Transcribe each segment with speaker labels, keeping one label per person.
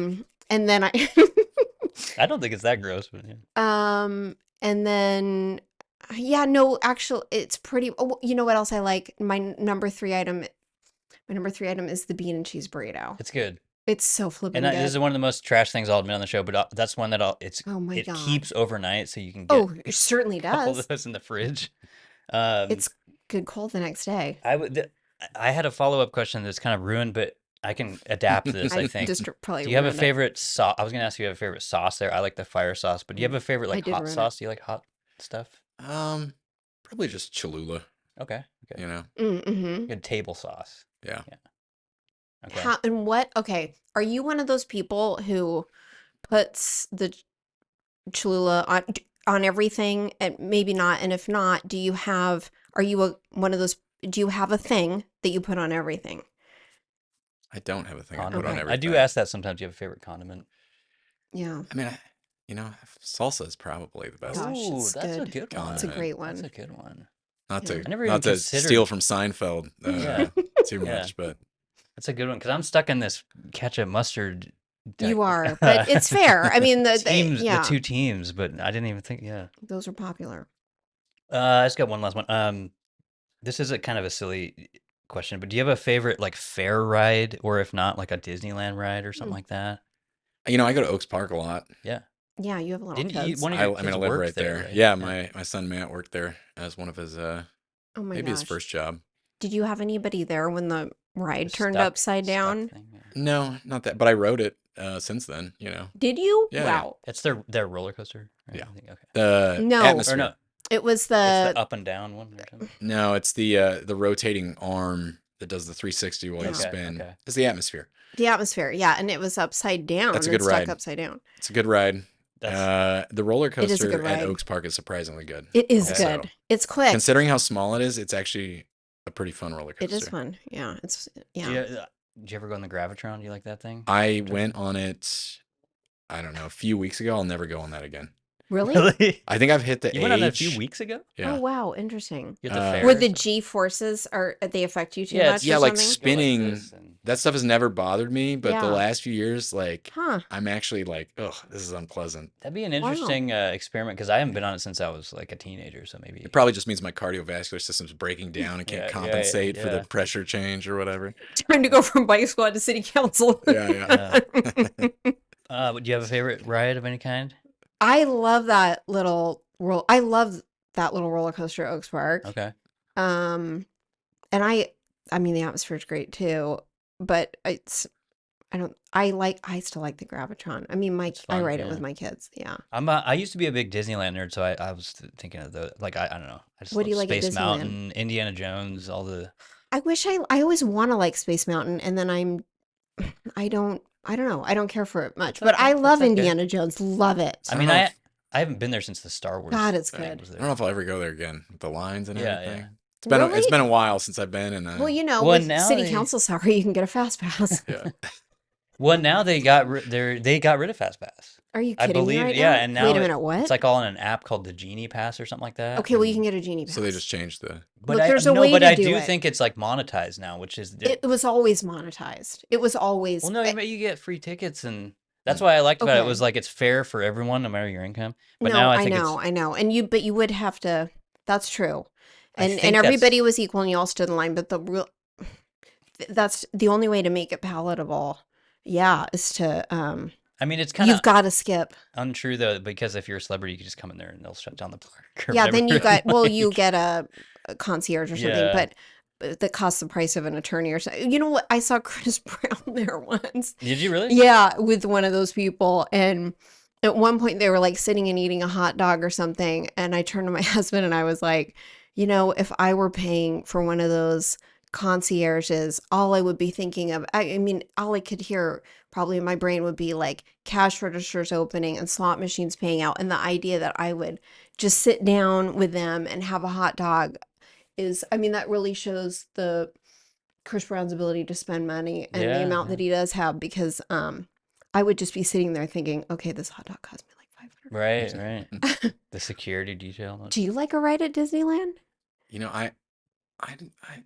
Speaker 1: Mm, And then I
Speaker 2: I don't think it's
Speaker 1: Mm.
Speaker 2: that gross, but yeah.
Speaker 1: um and then yeah, no, actually it's pretty oh, you know what else I like? My n- number 3 item my number 3 item is the bean and cheese burrito.
Speaker 2: it's good.
Speaker 1: It's so
Speaker 2: And
Speaker 1: flippin'
Speaker 2: I, this
Speaker 1: good.
Speaker 2: is one of the most trash things I'll admit on the show, but uh, that's one that I'll. It's
Speaker 1: Oh my
Speaker 2: it
Speaker 1: god.
Speaker 2: keeps overnight, so you can get
Speaker 1: Oh, it certainly
Speaker 2: a couple
Speaker 1: does.
Speaker 2: of those in the fridge. Um,
Speaker 1: It's good cold the next day.
Speaker 2: I would. Th- I I had a follow up question that's kind of ruined, but I can adapt this. I
Speaker 1: I
Speaker 2: think.
Speaker 1: just probably
Speaker 2: Do you have a
Speaker 1: ruined it.
Speaker 2: favorite sauce? I was gonna ask if you have a favorite sauce there. I like the fire sauce, but do you have
Speaker 1: Mm,
Speaker 2: a favorite
Speaker 1: I
Speaker 2: like
Speaker 1: did
Speaker 2: hot
Speaker 1: ruin it.
Speaker 2: sauce? Do you like hot stuff?
Speaker 3: Um, probably just Cholula.
Speaker 2: Okay, okay,
Speaker 3: You know,
Speaker 1: Mm-hmm.
Speaker 2: good table sauce.
Speaker 3: yeah.
Speaker 2: Yeah. Okay.
Speaker 1: How and what? Okay, are you one of those people who puts the ch- Cholula on d- on everything and maybe not? And if not, do you have? Are you a one of those? Do you have a thing that you put on everything?
Speaker 3: I don't have a thing I put on
Speaker 2: Condiment.
Speaker 1: Okay.
Speaker 2: I
Speaker 3: everything.
Speaker 2: do ask that sometimes. Do you have a favorite condiment?
Speaker 1: Yeah.
Speaker 3: I mean, I, you know, salsa is probably the best.
Speaker 1: Gosh,
Speaker 2: Ooh,
Speaker 1: it's
Speaker 2: that's a
Speaker 1: good.
Speaker 2: good
Speaker 1: It's a
Speaker 2: one.
Speaker 3: Condiment.
Speaker 1: great
Speaker 2: That's a
Speaker 1: one.
Speaker 2: good one.
Speaker 3: Not
Speaker 1: Yeah.
Speaker 3: to
Speaker 2: I never even
Speaker 3: not to
Speaker 2: considered.
Speaker 3: steal from Seinfeld
Speaker 2: Yeah,
Speaker 3: uh, too
Speaker 2: yeah,
Speaker 3: much, but
Speaker 2: that's a good one because I'm stuck in this ketchup mustard. di-
Speaker 1: You are, but it's fair. I mean, the, the
Speaker 2: teams, the
Speaker 1: yeah,
Speaker 2: two teams, but I didn't even think. Yeah,
Speaker 1: those are popular.
Speaker 2: uh, I just got one last one. Um, this is a kind of a silly question, but do you have a favorite like fair ride, or if not, like a Disneyland ride or something
Speaker 1: Mm.
Speaker 2: like that?
Speaker 3: you know, I go to Oaks Park a lot.
Speaker 2: Yeah,
Speaker 1: Yeah, you have little
Speaker 2: didn't you?
Speaker 1: kids.
Speaker 2: One of
Speaker 3: I,
Speaker 2: your
Speaker 3: I mean,
Speaker 2: kids
Speaker 3: I live
Speaker 2: worked
Speaker 3: right
Speaker 2: there,
Speaker 3: there.
Speaker 2: right?
Speaker 3: Yeah,
Speaker 2: Yeah.
Speaker 3: my my son Matt worked there as one of his uh
Speaker 1: Oh my
Speaker 3: maybe his
Speaker 1: gosh.
Speaker 3: first job.
Speaker 1: Did you have anybody there when the
Speaker 2: The
Speaker 1: ride turned
Speaker 2: stuck,
Speaker 1: upside
Speaker 2: stuck
Speaker 1: down?
Speaker 2: thing. Yeah.
Speaker 3: No, not that, but I rode it uh since then. You know,
Speaker 1: Did you?
Speaker 3: yeah, yeah.
Speaker 1: Wow.
Speaker 2: It's their their roller coaster. Right?
Speaker 3: Yeah.
Speaker 2: I think, okay.
Speaker 3: The
Speaker 1: No,
Speaker 2: Or
Speaker 3: atmosphere.
Speaker 2: no,
Speaker 1: it was
Speaker 2: it's the
Speaker 1: the
Speaker 2: up and down one or something.
Speaker 3: No, it's the uh the rotating arm that does the 360 while you
Speaker 1: yeah,
Speaker 2: Okay,
Speaker 3: spin.
Speaker 2: okay.
Speaker 3: It's the atmosphere.
Speaker 1: the atmosphere. Yeah, and it was upside
Speaker 3: That's
Speaker 1: down
Speaker 3: a
Speaker 1: and
Speaker 3: good
Speaker 1: stuck
Speaker 3: ride.
Speaker 1: upside down.
Speaker 3: It's a good ride.
Speaker 2: That's
Speaker 3: Uh, the roller
Speaker 1: It is a good
Speaker 3: coaster at
Speaker 1: ride.
Speaker 3: Oaks Park is surprisingly good.
Speaker 1: It is
Speaker 2: Okay.
Speaker 3: Also,
Speaker 1: good. It's quick.
Speaker 3: considering how small it is, it's actually a pretty fun roller
Speaker 1: It is
Speaker 3: coaster.
Speaker 1: fun. Yeah, it's
Speaker 2: do
Speaker 1: yeah.
Speaker 2: you, uh, do you ever go on the Gravitron? Do you like that thing?
Speaker 3: I went on it. I don't know, a few weeks ago. I'll never go on that again.
Speaker 1: Really?
Speaker 2: Really?
Speaker 3: I think I've hit the
Speaker 2: You
Speaker 3: age.
Speaker 2: went on that a few weeks ago?
Speaker 1: Oh
Speaker 3: Yeah,
Speaker 1: wow, interesting.
Speaker 2: You're at the
Speaker 3: Uh,
Speaker 2: fair.
Speaker 1: Where
Speaker 2: or
Speaker 1: the
Speaker 2: something?
Speaker 1: G forces are they affect you too
Speaker 2: Yeah,
Speaker 1: much
Speaker 2: it's
Speaker 1: or
Speaker 3: yeah,
Speaker 1: something?
Speaker 3: like
Speaker 2: go like
Speaker 3: spinning.
Speaker 2: this and
Speaker 3: that stuff has never bothered me, but the
Speaker 1: Yeah.
Speaker 3: last few years, like,
Speaker 1: Huh.
Speaker 3: I'm actually like, oh, this is unpleasant.
Speaker 2: that'd be an
Speaker 1: Wow.
Speaker 2: interesting uh, experiment because I haven't been on it since I was like a teenager, so maybe
Speaker 3: It probably just means my cardiovascular system's breaking down and can't
Speaker 2: yeah, yeah, yeah,
Speaker 3: compensate for the
Speaker 2: yeah.
Speaker 3: pressure change or whatever.
Speaker 1: Trying to go from bike squad to city council.
Speaker 3: Yeah, yeah.
Speaker 2: Yeah. Uh, but do you have a favorite ride of any kind?
Speaker 1: I love that little roll I love that little roller coaster at Oaks Park.
Speaker 2: Okay.
Speaker 1: Um and I I mean the atmosphere's great too, but it's I don't I like I still like the Gravitron. I mean my
Speaker 2: It's
Speaker 1: I
Speaker 2: fun.
Speaker 1: ride it with
Speaker 2: Yeah.
Speaker 1: my kids. Yeah.
Speaker 2: I'm a, I used to be a big Disneyland nerd, so I, I was th- thinking of the like I, I don't know. I just
Speaker 1: What do
Speaker 2: love
Speaker 1: you like at
Speaker 2: Space
Speaker 1: Disneyland?
Speaker 2: Mountain, Indiana Jones, all the
Speaker 1: I wish I I always want to like Space Mountain and then I'm I don't I don't know. I don't care for it much,
Speaker 2: That's
Speaker 1: but I
Speaker 2: okay. That's
Speaker 1: love
Speaker 2: okay.
Speaker 1: Indiana Jones. Love it.
Speaker 2: I
Speaker 3: I don't
Speaker 2: mean
Speaker 3: know
Speaker 2: I
Speaker 3: if
Speaker 2: I haven't been there since the Star Wars
Speaker 1: God, it's
Speaker 2: thing
Speaker 1: good.
Speaker 2: was
Speaker 3: I don't know
Speaker 2: there.
Speaker 3: if I'll ever go there again with the lines and
Speaker 2: Yeah,
Speaker 3: everything.
Speaker 2: yeah.
Speaker 3: It's been a, it's
Speaker 1: Really?
Speaker 3: been a while since I've been, and
Speaker 1: Well,
Speaker 3: uh,
Speaker 1: you know,
Speaker 2: Well,
Speaker 1: with
Speaker 2: now
Speaker 1: city
Speaker 2: they
Speaker 1: council salary, you can get a fast pass.
Speaker 3: yeah,
Speaker 2: well now they got ri- they they got rid of Fast Pass.
Speaker 1: Are you
Speaker 2: I
Speaker 1: kidding me
Speaker 2: believe
Speaker 1: right
Speaker 2: yeah,
Speaker 1: now?
Speaker 2: and
Speaker 1: Wait
Speaker 2: now
Speaker 1: a
Speaker 2: it,
Speaker 1: minute,
Speaker 2: it's
Speaker 1: what?
Speaker 2: like all in an app called the Genie Pass or something like that.
Speaker 1: Okay, well, you can
Speaker 2: And
Speaker 1: get a genie
Speaker 3: so they just
Speaker 1: pass.
Speaker 3: changed the.
Speaker 2: but
Speaker 1: Look,
Speaker 2: I
Speaker 1: there's a
Speaker 2: no,
Speaker 1: way
Speaker 2: but
Speaker 1: to
Speaker 2: I
Speaker 1: do
Speaker 2: do
Speaker 1: it.
Speaker 2: think it's like monetized now, which is the-
Speaker 1: It was always monetized. It was always
Speaker 2: Well, no,
Speaker 1: eh,
Speaker 2: but you get free tickets, and that's
Speaker 3: Mm.
Speaker 2: why I liked about it was
Speaker 1: okay.
Speaker 2: like it's fair for everyone, no matter your income. But now
Speaker 1: No,
Speaker 2: I
Speaker 1: I
Speaker 2: think it's,
Speaker 1: know, I know. And you but you would have to that's true.
Speaker 2: I
Speaker 1: And and
Speaker 2: think that's
Speaker 1: everybody was equal and you all stood in line, but the real th- that's the only way to make it palatable. Yeah, is to um
Speaker 2: I mean, it's kind of
Speaker 1: you've got to skip.
Speaker 2: untrue though, because if you're a celebrity, you can just come in there and they'll shut down the park or
Speaker 1: Yeah,
Speaker 2: whatever.
Speaker 1: then you
Speaker 2: and,
Speaker 1: got well, you
Speaker 2: like,
Speaker 1: get a, a concierge or something,
Speaker 2: yeah,
Speaker 1: but but that costs the price of an attorney or something. You know what? I saw Chris Brown there once.
Speaker 2: did you really?
Speaker 1: Yeah, with one of those people. And at one point, they were like sitting and eating a hot dog or something. And I turned to my husband and I was like, you know, if I were paying for one of those concierges, all I would be thinking of, I, I mean, all I could hear probably in my brain would be like cash registers opening and slot machines paying out. And the idea that I would just sit down with them and have a hot dog is, I mean, that really shows the Chris Brown's ability to spend money and the
Speaker 2: Yeah,
Speaker 1: amount
Speaker 2: yeah,
Speaker 1: that he does have because um I would just be sitting there thinking, okay, this hot dog cost me like five hundred
Speaker 2: right,
Speaker 1: dollars.
Speaker 2: right. The security detail.
Speaker 1: Do you like a ride at Disneyland?
Speaker 3: you know, I, I, didn't- I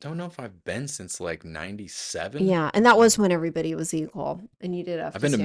Speaker 3: don't know if I've been since like 97.
Speaker 1: Yeah, and that was when everybody was equal, and you did have.
Speaker 3: I've been to